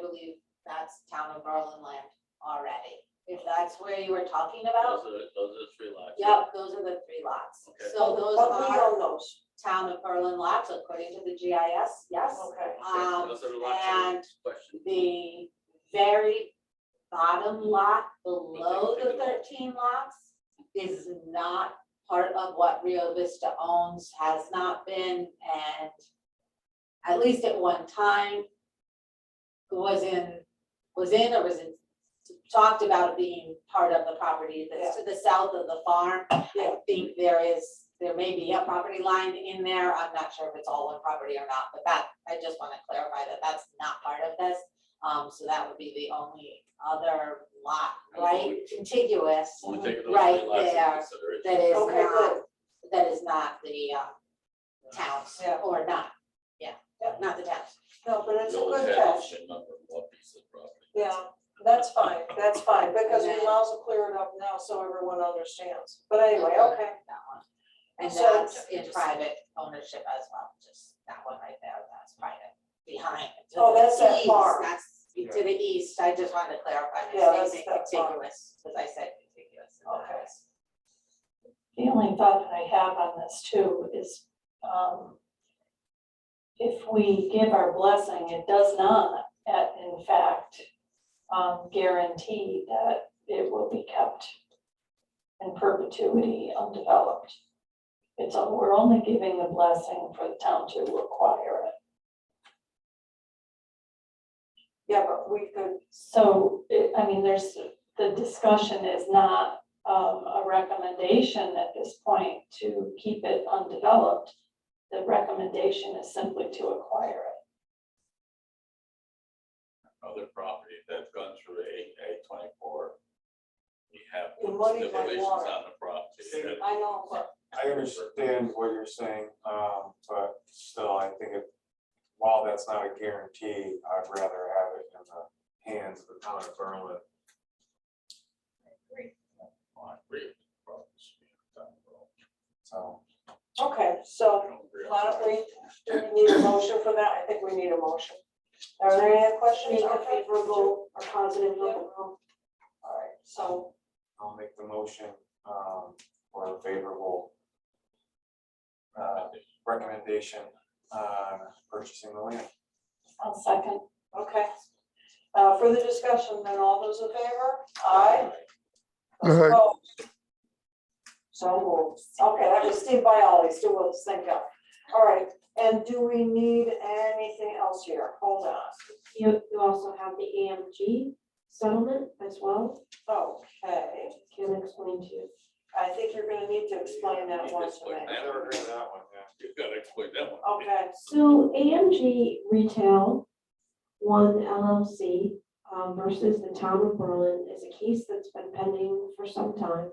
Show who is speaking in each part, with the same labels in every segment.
Speaker 1: believe that's town of Berlin land already. If that's where you were talking about,
Speaker 2: Those are, those are the three lots.
Speaker 1: yep, those are the three lots.
Speaker 2: Okay.
Speaker 1: So those
Speaker 3: But we
Speaker 1: are
Speaker 3: own those.
Speaker 1: town of Berlin lots according to the GIS, yes.
Speaker 3: Okay.
Speaker 2: Okay,
Speaker 1: Um,
Speaker 2: Those are the lots that
Speaker 1: and
Speaker 2: are questioned.
Speaker 1: the very bottom lot below the thirteen lots is not part of what Rio Vista owns, has not been, and at least at one time was in, was in or was in, talked about being part of the property that's to the south of the farm. I
Speaker 3: Yeah.
Speaker 1: think there is, there may be a property line in there. I'm not sure if it's all one property or not, but that, I just want to clarify that that's not part of this. Um, so that would be the only other lot, right, contiguous,
Speaker 3: uh,
Speaker 2: Only taking those
Speaker 1: Right
Speaker 2: three lots
Speaker 1: there,
Speaker 2: into consideration.
Speaker 1: that is
Speaker 3: Okay,
Speaker 1: not,
Speaker 3: good.
Speaker 1: that is not the, uh, towns,
Speaker 3: Yeah.
Speaker 1: or not, yeah, not the towns.
Speaker 3: No, but it's a
Speaker 2: The old
Speaker 3: good
Speaker 2: town
Speaker 3: catch.
Speaker 2: should number one piece of property.
Speaker 3: Yeah, that's fine, that's fine, because
Speaker 1: And
Speaker 3: we
Speaker 1: then-
Speaker 3: also clear it up now so everyone understands. But anyway, okay.
Speaker 1: That one. And
Speaker 3: So-
Speaker 1: that's in private ownership as well, just that one right there, that's private, behind. to
Speaker 3: Oh,
Speaker 1: the
Speaker 3: that's that
Speaker 1: east,
Speaker 3: farm.
Speaker 1: That's to the east, I just wanted to clarify,
Speaker 3: Yeah,
Speaker 1: I
Speaker 3: that's
Speaker 1: say
Speaker 3: that farm.
Speaker 1: contiguous, because I said contiguous. and that
Speaker 3: Okay.
Speaker 1: was-
Speaker 4: The only thought that I have on this too is, um, if we give our blessing, it does not, uh, in fact, um, guarantee that it will be kept in perpetuity undeveloped. It's, on- we're only giving the blessing for the town to acquire it.
Speaker 3: Yeah, but we could,
Speaker 4: So, it, I mean, there's, the discussion is not, um, a recommendation at this point to keep it undeveloped. The recommendation is simply to acquire it.
Speaker 2: Other property that's gone through A, A twenty-four. We have
Speaker 3: The money by
Speaker 2: stipulations
Speaker 3: water.
Speaker 2: on the property. that-
Speaker 3: I know, but
Speaker 5: I understand what you're saying, um, but still, I think it, while that's not a guarantee, I'd rather have it in the hands of the town of Berlin.
Speaker 2: I agree with the property should be on the road.
Speaker 5: So,
Speaker 3: okay, so
Speaker 2: I don't agree on
Speaker 3: why don't
Speaker 2: that.
Speaker 3: we, do we need a motion for that? I think we need a motion. Are there any other questions?
Speaker 6: Make a
Speaker 3: Okay.
Speaker 6: favorable or positive vote.
Speaker 3: All right, so
Speaker 5: I'll make the motion, um, for a favorable uh,
Speaker 2: I think
Speaker 5: recommendation on purchasing the land.
Speaker 4: I'll second.
Speaker 3: Okay. Uh, further discussion, then all those in favor? Aye. Those opposed? So moved. Okay, that was Steve Bialy, Steve will sync up. All right, and do we need anything else here? Hold on.
Speaker 6: You, you also have the AMG settlement as well,
Speaker 3: Okay,
Speaker 6: can explain to you.
Speaker 3: I think you're gonna need to explain that
Speaker 2: You
Speaker 3: one
Speaker 2: explain
Speaker 3: tonight.
Speaker 2: that.
Speaker 5: Never heard of that one, yeah.
Speaker 2: You gotta explain that one.
Speaker 3: Okay,
Speaker 6: So AMG Retail, one LLC um, versus the town of Berlin is a case that's been pending for some time.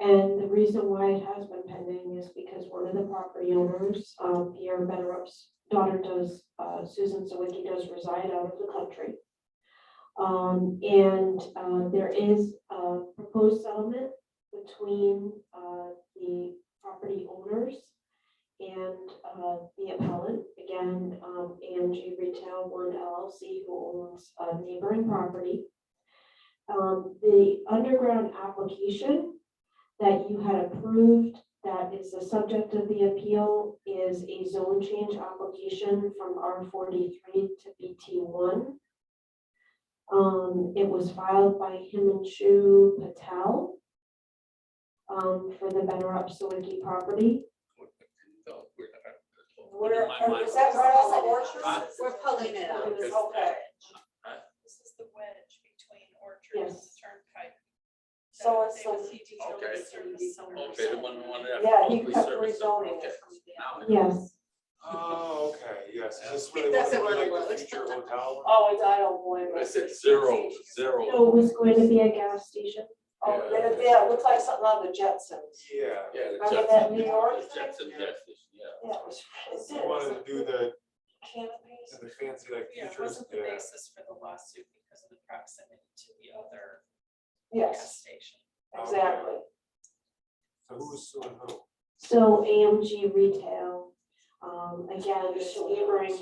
Speaker 6: And the reason why it has been pending is because one of the property owners, um, Pierre Benrup's daughter does, uh, Susan Sawicki does reside out of the country. Um, and, uh, there is a proposed settlement between, uh, the property owners and uh, the appellant, again, um, AMG Retail One LLC, who owns a neighboring property. Um, The underground application that you had approved, that is the subject of the appeal, is a zone change application from R forty-three to BT one. Um, It was filed by Himanshu Patel um, for the Better Sawicki property.
Speaker 2: No, we're not.
Speaker 3: where,
Speaker 2: In my mind,
Speaker 3: is that right off of Orchard?
Speaker 1: We're pulling it up.
Speaker 2: It's-
Speaker 3: Okay,
Speaker 7: This is the wedge between Orchard and the
Speaker 6: Yes.
Speaker 7: Turnpike.
Speaker 3: so it's
Speaker 7: There was
Speaker 3: the,
Speaker 7: heat utility
Speaker 2: Okay.
Speaker 7: service somewhere.
Speaker 2: Okay, the one, one that.
Speaker 3: yeah, he
Speaker 2: Hopefully
Speaker 3: kept
Speaker 2: service it.
Speaker 3: rezoning
Speaker 2: Okay.
Speaker 3: it.
Speaker 2: Now I know.
Speaker 6: Yes.
Speaker 5: Oh, okay, yes, is this
Speaker 1: I think
Speaker 5: really
Speaker 1: that's
Speaker 5: what it
Speaker 1: the
Speaker 5: would
Speaker 1: one
Speaker 5: be like
Speaker 1: I
Speaker 5: the future hotel?
Speaker 3: Oh, it's- I don't blame
Speaker 2: I
Speaker 3: it.
Speaker 2: said zero, zero.
Speaker 6: So it was going to be a gas station.
Speaker 3: Oh, yeah, yeah, it looked like something on the Jetsons.
Speaker 5: Yeah.
Speaker 2: Yeah, the
Speaker 3: Remember
Speaker 2: Jetson.
Speaker 3: that New York
Speaker 2: the
Speaker 3: thing?
Speaker 2: Jetson gas station, yeah.
Speaker 3: Yeah, it was. it's-
Speaker 5: You wanted to do the,
Speaker 3: Canopies.
Speaker 5: the fancy like
Speaker 7: Yeah, it
Speaker 5: futures,
Speaker 7: wasn't the
Speaker 5: yeah.
Speaker 7: basis for the lawsuit because of the proximity to the other gas
Speaker 3: Yes,
Speaker 7: station.
Speaker 2: Oh,
Speaker 3: exactly.
Speaker 5: So who's suing who?
Speaker 6: So AMG Retail, um, again,
Speaker 3: Just
Speaker 6: neighboring